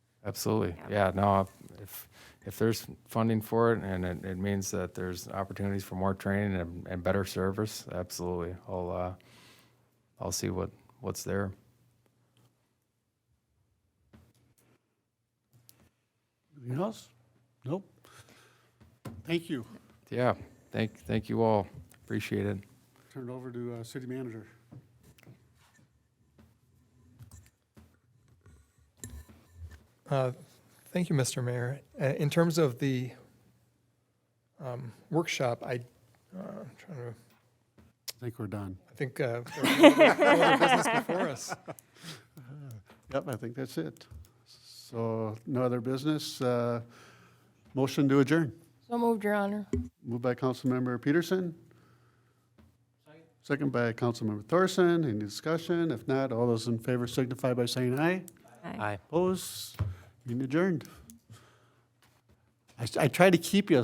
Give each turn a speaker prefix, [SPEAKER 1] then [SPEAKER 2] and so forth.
[SPEAKER 1] Absolutely. Yeah, no, if, if there's funding for it and it, it means that there's opportunities for more training and, and better service, absolutely. I'll, uh, I'll see what, what's there.
[SPEAKER 2] Anything else? Nope. Thank you.
[SPEAKER 1] Yeah, thank, thank you all. Appreciate it.
[SPEAKER 2] Turn it over to uh, City Manager.
[SPEAKER 3] Uh, Thank you, Mr. Mayor. Uh, In terms of the um, workshop, I, uh, I'm trying to,
[SPEAKER 2] I think we're done.
[SPEAKER 3] I think uh, there's no other business before us.
[SPEAKER 2] Yep, I think that's it. So no other business. uh, Motion to adjourn.
[SPEAKER 4] So moved, Your Honor.
[SPEAKER 2] Moved by Councilmember Peterson. Second by Councilmember Thorson. Any discussion? If not, all those in favor signify by saying aye. Opposed? Meeting adjourned. I s- I tried to keep you